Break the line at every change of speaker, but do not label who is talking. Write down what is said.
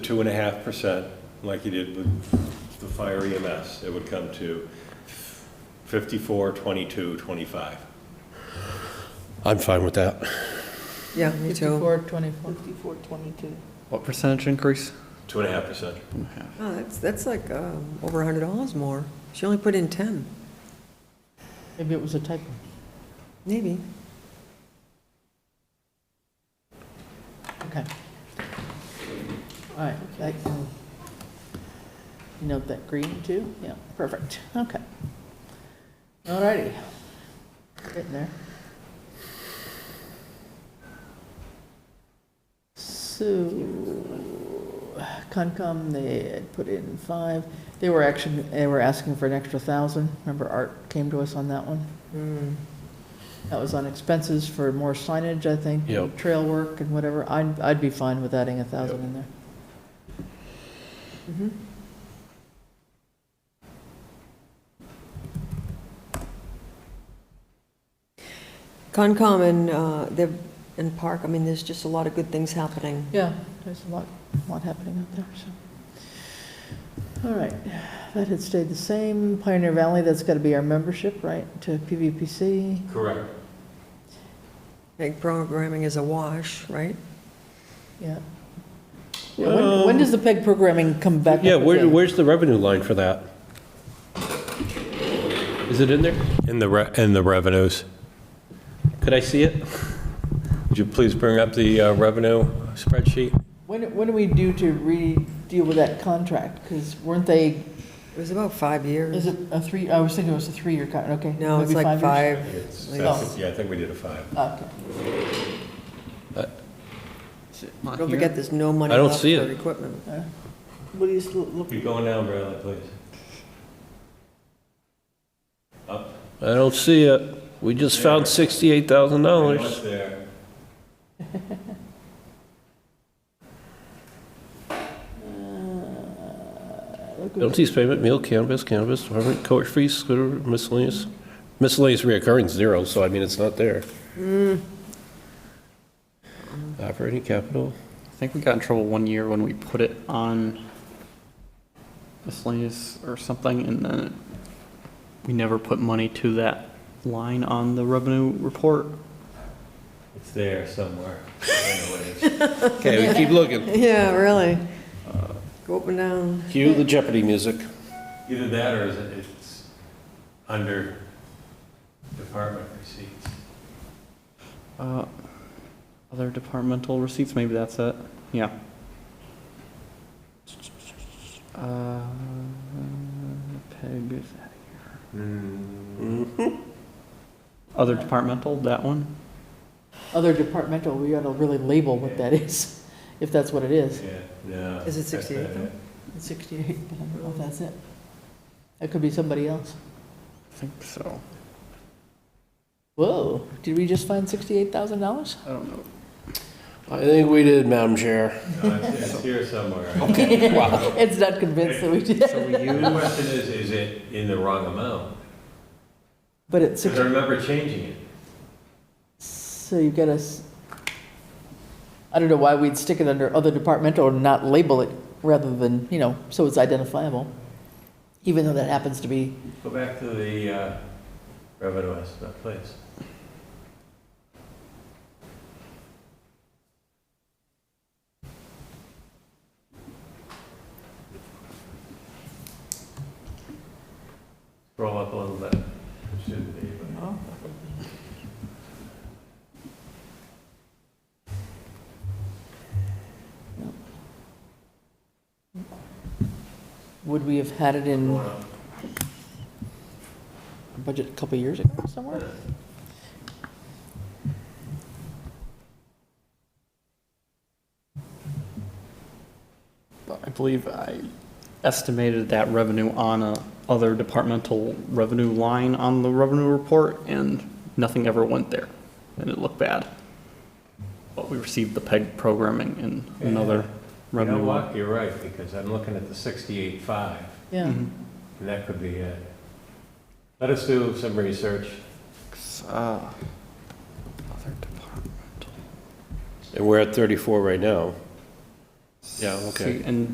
two and a half percent, like you did with the fire EMS, it would come to fifty-four, twenty-two, twenty-five.
I'm fine with that.
Yeah, me too.
Fifty-four, twenty-four.
Fifty-four twenty-two.
What percentage increase?
Two and a half percent.
Oh, that's, that's like um, over a hundred dollars more. She only put in ten,
Maybe it was a typo.
maybe.
Okay. All right, that, you note that green too? Yeah, perfect, okay. All righty. Getting there. So, Concom, they had put in five, they were actually, they were asking for an extra thousand, remember Art came to us on that one? That was on expenses for more signage, I think. and
Yep.
Trail work and whatever. I'd, I'd be fine with adding a thousand in there.
Mm-hmm. Concom and, uh, they're, and Park, I mean, there's just a lot of good things happening.
Yeah, there's a lot, a lot happening out there, so. All right, that had stayed the same. Pioneer Valley, that's got to be our membership, right, to PVPC?
Correct.
Egg programming is a wash, right?
Yeah. Yeah, When, when does the PEG programming come back up
Um, Yeah, where,
again?
where's the revenue line for that? Is it in there?
In the, re- in the revenues.
Could I see it?
Would you please bring up the uh, revenue spreadsheet?
When, when do we do to re-deal with that contract? Because weren't they,
It was about five
is
years.
it a three, I was thinking it was a three-year contract, okay.
No, it's
maybe
like
years?
five.
It's-
like-
that's- Yeah, I think we did a five.
Okay.
Don't forget, there's no money
I don't
left for
see it.
equipment.
What are you still looking?
Keep going down, Bradley, please. Up.
I don't see it. We just found sixty-eight thousand
Right
dollars.
there.
Uh,
Penalties, payment, meal, cannabis, cannabis, department, coach fees, scooter, miscellaneous. Miscellaneous reoccurring zero, so I mean, it's not there. Operating capital.
I think we got in trouble one year when we put it on miscellaneous or something, and then we never put money to that line on the revenue report.
It's there somewhere. I know it is.
Okay, we keep looking.
Yeah, really. Go up and down.
Cue the Jeopardy music.
Either that or is it- it's under department receipts.
Uh, Other departmental receipts, maybe that's it. Yeah. Uh, Peg is out of here. Other departmental, that one?
Other departmental, we gotta really label what that is, if that's what it is.
Yeah, no.
Is it
that's
68
not
though?
it.
Sixty-eight, but I don't know if that's it. That could be somebody else.
I think so.
Whoa, did we just find sixty-eight thousand dollars?
I don't know.
I think we did, Madam Chair.
No, It's it's here somewhere.
Ed's not convinced that we did,
So we
The
use,
question is, is it in the wrong amount?
but it's,
Because I
six-
remember changing it.
so you got us, I don't know why we'd stick it under other departmental and not label it rather than, you know, so it's identifiable. Even though that happens to be,
Go back to the uh, revenue estimate, please. Scroll up a little bit. It shouldn't be, but-
would we have had it in
Going
our
up.
budget a couple years ago somewhere?
I believe I estimated that revenue on a other departmental revenue line on the revenue report, and nothing ever went there, and it looked bad. But we received the PEG programming in another
You know
revenue line.
what, you're right, because I'm looking at the sixty-eight five,
Yeah,
Mhm.
and that could be it. Let us do some research.
Uh, Other departmental.
And we're at thirty-four right now. Yeah, okay.
And